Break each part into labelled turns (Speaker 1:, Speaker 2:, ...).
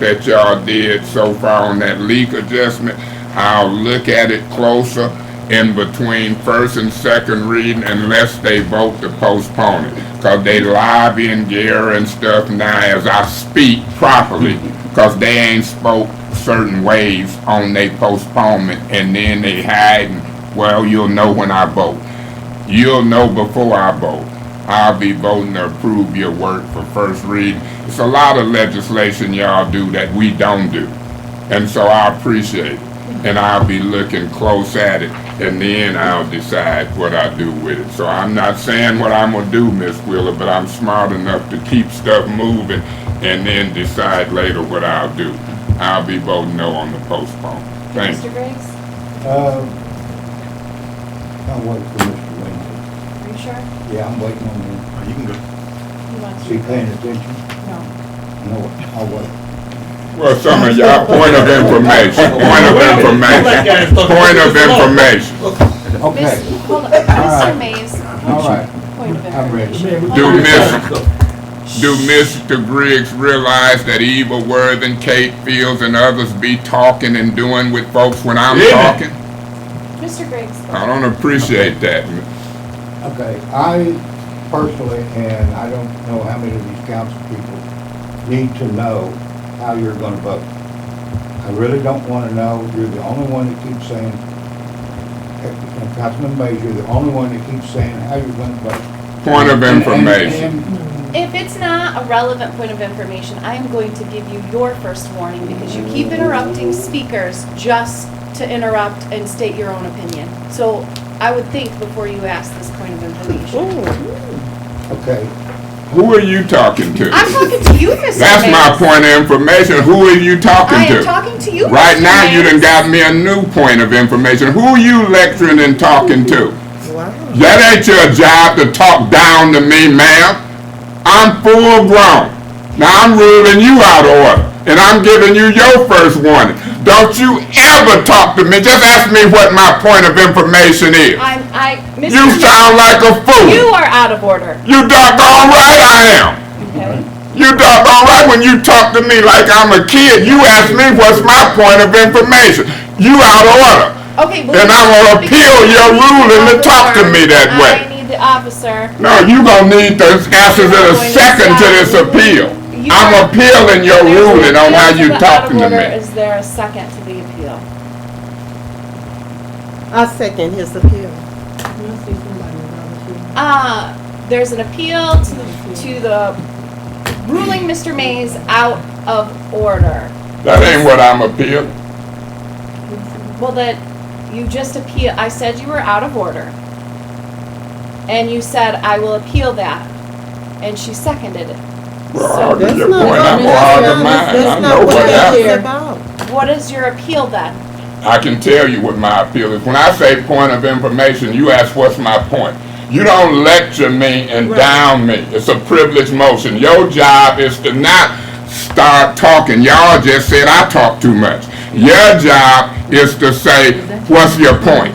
Speaker 1: that y'all did so far on that leak adjustment. I'll look at it closer in between first and second reading unless they vote to postpone it. Cause they lobbying Gary and stuff now as I speak properly, cause they ain't spoke certain ways on they postponement and then they hiding, well, you'll know when I vote. You'll know before I vote. I'll be voting to approve your work for first read. It's a lot of legislation y'all do that we don't do. And so I appreciate it. And I'll be looking close at it and then I'll decide what I do with it. So I'm not saying what I'm gonna do, Miss Wheeler, but I'm smart enough to keep stuff moving and then decide later what I'll do. I'll be voting no on the postpone. Thank you.
Speaker 2: Mr. Griggs,
Speaker 3: Um, I'm waiting for Mr. Wayne.
Speaker 2: are you sure?
Speaker 3: Yeah, I'm waiting on him.
Speaker 4: Oh, You can go.
Speaker 2: He wants
Speaker 3: Is
Speaker 2: to.
Speaker 3: he paying attention?
Speaker 2: No.
Speaker 3: No, I'll wait.
Speaker 1: Well, some of y'all, point of information, point of information, point of information.
Speaker 2: Miss,
Speaker 3: Okay,
Speaker 2: hold on,
Speaker 3: right.
Speaker 2: Mr. Mays,
Speaker 3: all right.
Speaker 2: point of
Speaker 3: I'm ready.
Speaker 2: information. Hold
Speaker 1: Do
Speaker 2: on.
Speaker 1: Miss, do Mr. Griggs realize that Eva Worthing, Kate Fields, and others be talking and doing with folks when I'm
Speaker 4: Yeah.
Speaker 1: talking?
Speaker 2: Mr. Griggs,
Speaker 1: I don't appreciate that.
Speaker 3: Okay, I personally, and I don't know how many of these council people need to know how you're gonna vote. I really don't wanna know. You're the only one that keeps saying, and Councilman Mays, you're the only one that keeps saying how you're gonna vote.
Speaker 1: Point of
Speaker 3: And- and-
Speaker 1: information.
Speaker 3: and-
Speaker 2: if it's not a relevant point of information, I am going to give you your first warning because you keep interrupting speakers just to interrupt and state your own opinion. So I would think before you ask this point of information.
Speaker 3: Okay,
Speaker 1: Who are you talking to?
Speaker 2: I'm talking to you, Mr. Mays.
Speaker 1: That's my point of information. Who are you
Speaker 2: I
Speaker 1: talking
Speaker 2: am
Speaker 1: to?
Speaker 2: talking to you, Mr.
Speaker 1: Right now, you done
Speaker 2: Mays.
Speaker 1: got me a new point of information. Who you lecturing and talking to?
Speaker 5: Wow.
Speaker 1: That ain't your job to talk down to me, ma'am. I'm full grown. Now I'm ruling you out of order, and I'm giving you your first warning. Don't you ever talk to me. Just ask me what my point of information is.
Speaker 2: I'm, I, Mr.
Speaker 1: You
Speaker 2: Mays,
Speaker 1: sound like a
Speaker 2: You
Speaker 1: fool.
Speaker 2: are out of order,
Speaker 1: You doggone right I am.
Speaker 2: okay?
Speaker 1: You doggone right when you talk to me like I'm a kid. You ask me what's my point of information. You out of order.
Speaker 2: Okay, well.
Speaker 1: Then
Speaker 2: you
Speaker 1: I will
Speaker 2: have
Speaker 1: appeal
Speaker 2: be
Speaker 1: your
Speaker 2: the
Speaker 1: ruling to talk to
Speaker 2: officer.
Speaker 1: me that way.
Speaker 2: I need the officer.
Speaker 1: No, you gonna need the answers in a second to this appeal. I'm appealing your
Speaker 2: There's an
Speaker 1: ruling on how
Speaker 2: appeal
Speaker 1: you
Speaker 2: the
Speaker 1: talking to
Speaker 2: out of order.
Speaker 1: me.
Speaker 2: Is there a second to the appeal?
Speaker 5: I second his appeal.
Speaker 2: Uh, there's an appeal to, the- to the ruling Mr. Mays out of order.
Speaker 1: That ain't what I'm appealing.
Speaker 2: Well, that, you just appeal, I said you were out of order. And you said, I will appeal that. And she seconded it.
Speaker 1: Well,
Speaker 2: So-
Speaker 1: I argue
Speaker 5: That's
Speaker 1: your
Speaker 5: not
Speaker 1: point,
Speaker 5: what
Speaker 1: I'm
Speaker 5: Mr.
Speaker 1: gonna argue
Speaker 5: Thomas-
Speaker 1: mine,
Speaker 5: that's
Speaker 1: I
Speaker 5: not
Speaker 1: know
Speaker 5: what
Speaker 1: what
Speaker 5: this
Speaker 1: happened.
Speaker 5: is about.
Speaker 2: What is your appeal then?
Speaker 1: I can tell you what my appeal is. When I say point of information, you ask what's my point. You don't lecture me and
Speaker 5: Right.
Speaker 1: down me. It's a privileged motion. Your job is to not start talking. Y'all just said I talk too much. Your job is to say, what's your point?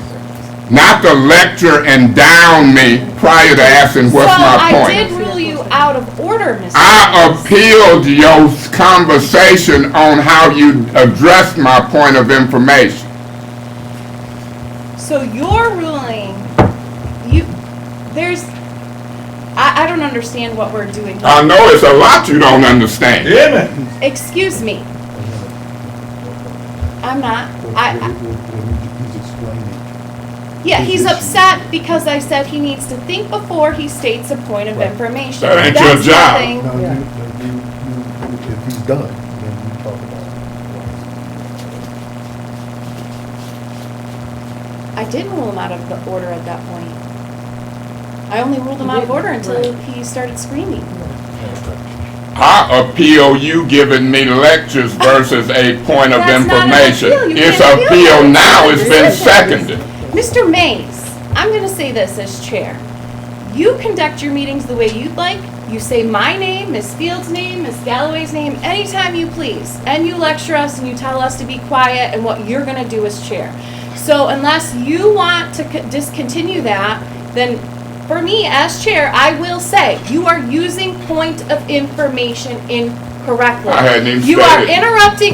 Speaker 1: Not to lecture and down me prior to asking what's my
Speaker 2: So
Speaker 1: point.
Speaker 2: I did rule you out of order, Mr.
Speaker 1: I
Speaker 2: Mays.
Speaker 1: appealed your conversation on how you addressed my point of information.
Speaker 2: So your ruling, you, there's, I, I don't understand what we're doing.
Speaker 1: I know it's a lot you don't understand.
Speaker 4: Yeah, man.
Speaker 2: Excuse me, I'm not, I, I-
Speaker 3: He's explaining.
Speaker 2: yeah, he's upset because I said he needs to think before he states a point of
Speaker 3: Right.
Speaker 2: information.
Speaker 1: That ain't your
Speaker 2: That's
Speaker 1: job.
Speaker 2: nothing-
Speaker 3: No, you,
Speaker 5: Yeah.
Speaker 3: no, you, you, if he's done, then you talk about
Speaker 2: I did rule him out of the order at that point. I only ruled him out of order until he started screaming.
Speaker 1: I appeal you giving me lectures versus a point of
Speaker 2: That's not an
Speaker 1: information.
Speaker 2: appeal. You
Speaker 1: It's
Speaker 2: can't appeal
Speaker 1: appeal
Speaker 2: that.
Speaker 1: now, it's been
Speaker 2: It's a decision.
Speaker 1: seconded.
Speaker 2: Mr. Mays, I'm gonna say this as chair. You conduct your meetings the way you'd like. You say my name, Miss Field's name, Miss Galloway's name, anytime you please. And you lecture us and you tell us to be quiet and what you're gonna do as chair. So unless you want to co- discontinue that, then for me as chair, I will say, you are using point of information incorrectly.
Speaker 1: I hadn't even
Speaker 2: You
Speaker 1: said
Speaker 2: are
Speaker 1: it.
Speaker 2: interrupting